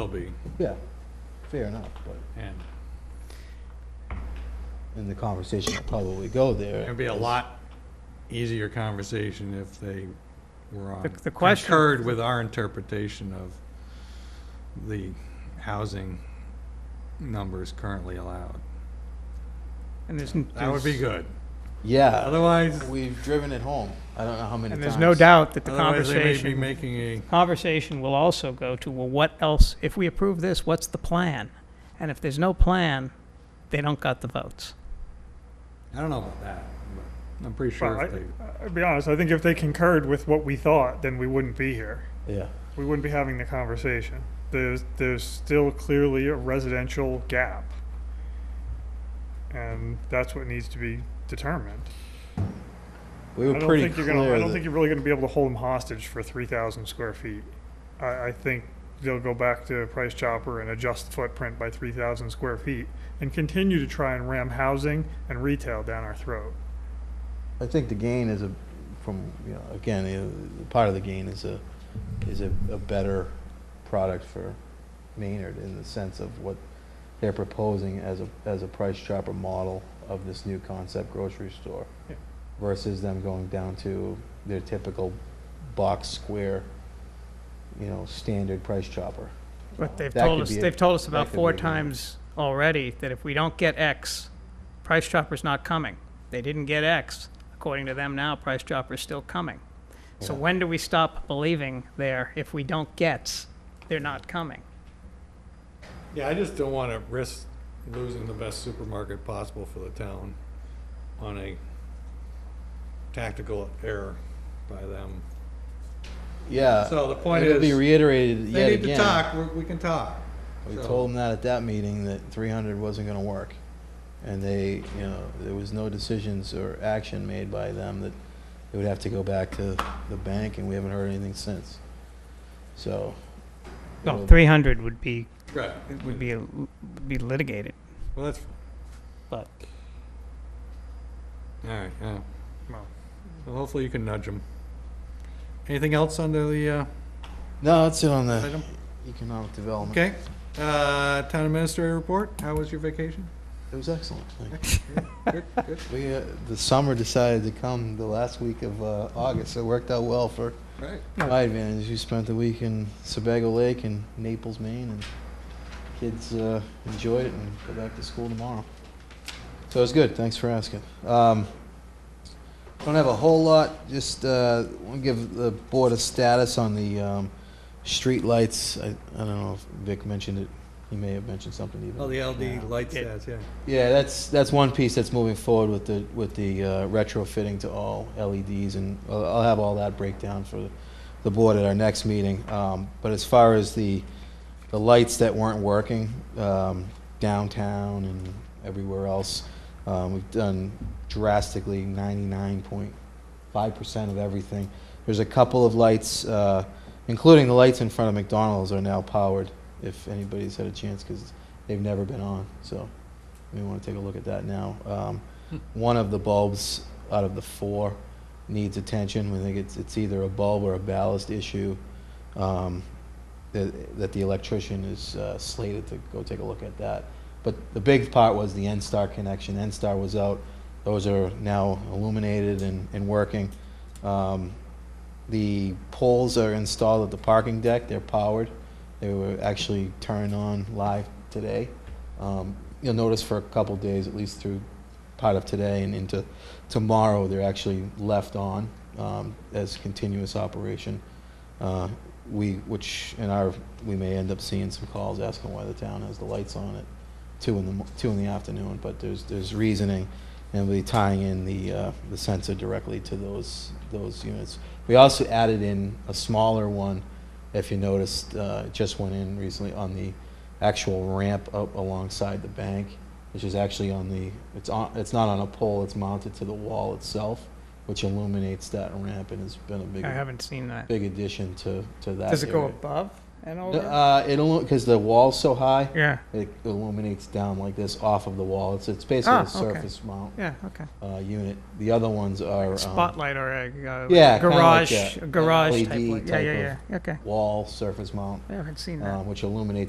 will be, Yeah, fair enough, but and in the conversation, will probably go there. it'd be a lot easier conversation if they were on. The- the question- Concurred with our interpretation of the housing numbers currently allowed. And there's, That would be there's- good. Yeah, Otherwise, we've driven it home. I don't know how many And times. there's no doubt that the otherwise they may be conversation, making a, conversation will also go to, well, what else, if we approve this, what's the plan? And if there's no plan, they don't got the votes. I don't know about that, but I'm pretty sure if Well, they, I- I'll be honest, I think if they concurred with what we thought, then we wouldn't be here. Yeah, We wouldn't be having the conversation. There's, there's still clearly a residential gap. And that's what needs to be determined. we I were don't pretty think you're gonna, I clear don't think that, you're really gonna be able to hold them hostage for three thousand square feet. I, I think they'll go back to Price Chopper and adjust the footprint by three thousand square feet and continue to try and ram housing and retail down our throat. I think the gain is a, from, you know, again, the- the part of the gain is a, is a, a better product for Maynard in the sense of what they're proposing as a, as a price chopper model of this new concept grocery store Yeah. versus them going down to their typical box square, you know, standard price chopper. But they've That told could us, be a- they've told us that about could four be a- times already that if we don't get X, Price Chopper's not coming. They didn't get X. According to them now, Price Chopper's still coming. So Yeah. when do we stop believing there if we don't get, they're not coming? yeah, I just don't want to risk losing the best supermarket possible for the town on a tactical error by them. Yeah. So the point It'll be is, reiterated yet They need to again. talk, we- we can talk. We So- told them that at that meeting that 300 wasn't going to work, and they, you know, there was no decisions or action made by them that they would have to go back to the bank, and we haven't heard anything since. So. Well, it'll- 300 would be, Right. would be, would be litigated. Well, that's. But- All right, yeah. Well. Well, hopefully you can nudge them. Anything else under the, uh, No, that's it on the item? economic development. Okay, uh, town administrator report, how was your vacation? It was excellent. Thank you. Good, good, We, uh, the summer decided to come the last week of uh, August, so it worked out well for right. My advantage, you spent the week in Sebago Lake and Naples, Maine, and kids uh, enjoyed it and go back to school tomorrow. So it's good. Thanks for asking. Um, don't have a whole lot. Just uh, want to give the board a status on the um, street lights. I, I don't know if Vic mentioned it. He may have mentioned something even. Oh, the now. LD light It- stats, yeah. Yeah, that's, that's one piece that's moving forward with the, with the uh, retrofitting to all LEDs, and I'll I'll have all that breakdown for the board at our next meeting. Um, But as far as the, the lights that weren't working um, downtown and everywhere else, um, we've done drastically ninety-nine point five percent of everything. There's a couple of lights, uh, including the lights in front of McDonald's are now powered, if anybody's had a chance, because they've never been on, so we want to take a look at that now. Um, One of the bulbs out of the four needs attention. We think it's, it's either a bulb or a ballast issue um, that, that the electrician is uh, slated to go take a look at that. But the big part was the N-Star connection. N-Star was out. Those are now illuminated and, and working. Um, the poles are installed at the parking deck. They're powered. They were actually turned on live today. Um, you'll notice for a couple days, at least through part of today and into tomorrow, they're actually left on um, as continuous operation. Uh, we, which in our, we may end up seeing some calls asking why the town has the lights on at two in the mo- two in the afternoon. But there's there's reasoning, and we'll be tying in the uh, the sensor directly to those those units. We also added in a smaller one, if you noticed, uh, it just went in recently on the actual ramp up alongside the bank, which is actually on the, it's on, it's not on a pole, it's mounted to the wall itself, which illuminates that ramp and has been a big, I haven't seen that. big addition to, to that Does it go area. above and No, over? Uh, it'll, because the wall's so high, Yeah, it illuminates down like this off of the wall. It's, it's basically Ah, a okay. surface mount, yeah, okay. uh, unit. The other ones are, um, Spotlight or a uh, Yeah, kinda like garage, that, a garage LED type, light. yeah, type yeah, of- yeah, okay. wall surface mount, I haven't seen that. um, which illuminates